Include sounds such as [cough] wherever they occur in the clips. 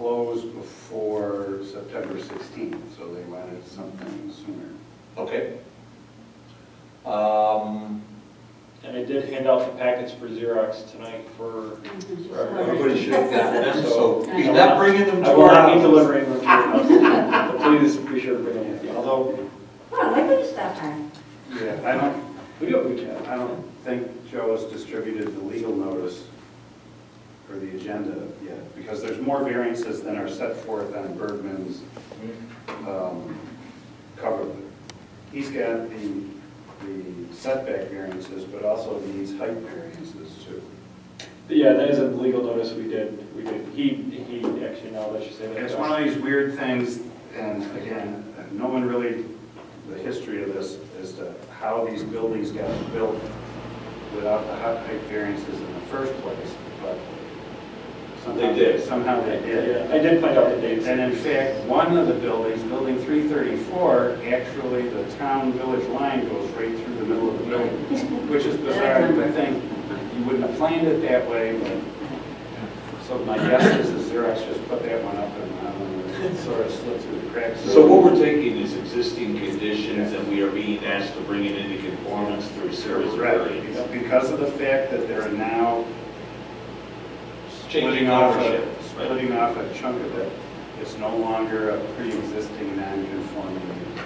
closed before September 16th, so they wanted something sooner. Okay. Um, And I did hand out the packets for Xerox tonight for, for everybody. Everybody should have gotten [laughs] them, so he's I will not not- bringing them I to will our not be office. delivering them to your house, but please be sure to bring them with you. Although, Well, I could stop by. Yeah, I don't, we do what we can. I don't think Joe has distributed the legal notice for the agenda yet, because there's more variances than are set forth on Bergman's um, cover. He's got the the setback variances, but also these height variances too. Yeah, that is a legal notice we did, we did, he, he, actually, now that you say that. It's one of these weird things, and again, no one really, the history of this, as to how these buildings got built without the hot height variances in the first place, but somehow. They did. Somehow they did. Yeah, I did find out the dates. And in fact, one of the buildings, Building 334, actually, the town-village line goes right through the middle of the building, which is bizarre, you would think you wouldn't have planned it that way, but so my guess is the Xerox just put that one up and um, it sort of slipped through the cracks. So what we're taking is existing conditions and we are being asked to bring it into conformance through a series of Right, variants. because- because of the fact that they're now Changing splitting off, a- ownership. right? splitting off a chunk of it, it's no longer a pre-existing non-conforming use.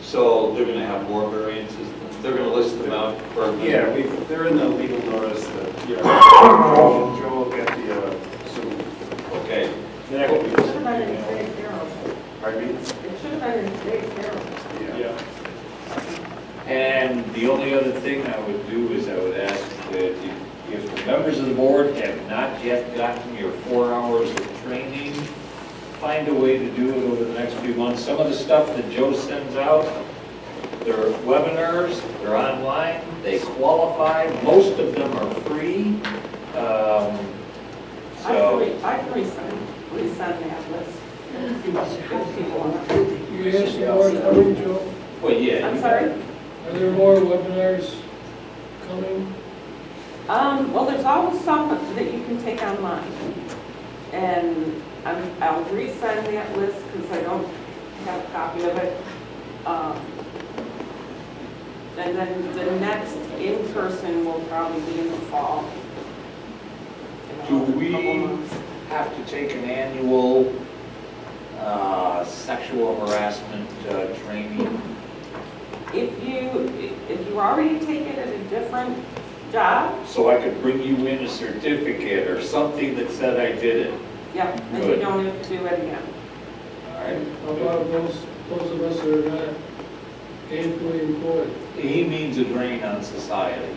So they're gonna have more variances, they're gonna list them out for. Yeah, we, they're in the legal notice that, Yeah, Joe Joe will get the, uh, so- Okay, that could be It should have been in just. today's Herald. pardon me? It should have been in today's Herald. Yeah. And the only other thing I would do is I would ask that if, if the members of the board have not yet gotten your four hours of training, find a way to do it over the next few months. Some of the stuff that Joe sends out, they're webinars, they're online, they qualify, most of them are free. Um, I So. can, re- I can resend, resend that list. You have some more coming, Joe? Well, yeah. I'm you- sorry? Are there more webinars coming? Um, well, there's always some that you can take online. And I'm, I'll resend that list because I don't have a copy of it. Um, And then the next in-person will probably be in the fall. Do In a we- couple months. have to take an annual uh, sexual harassment uh, training. If you, if you already take it at a different job, So I could bring you in a certificate or something that said I did it. Yep, and you Good. don't have to do it again. All right? How about those, those of us that are not gainfully employed? He means a drain on society.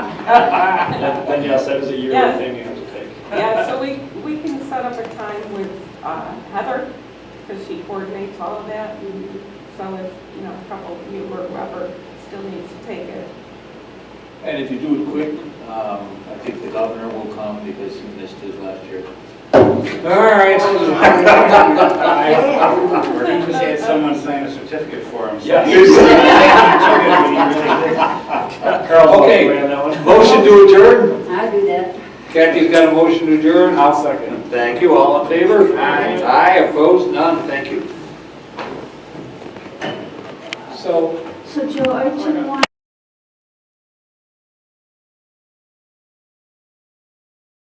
That- Then yes, that is a yearly Yes. thing you have to take. Yeah, so we, we can set up a time with uh, Heather, because she coordinates all of that. and So if, you know, a couple of you or whoever still needs to take it. And if you do it quick, um, I think the governor will come because he missed his last year. All right. We're gonna just had someone sign a certificate for him. so- [laughs] Carl's all Okay. the way on that one. Motion to adjourn? I do that. Kathy's got a motion to adjourn. I'll second. Thank you, all in favor? Aye. Aye, opposed, none, thank you. So So Joe, aren't you the one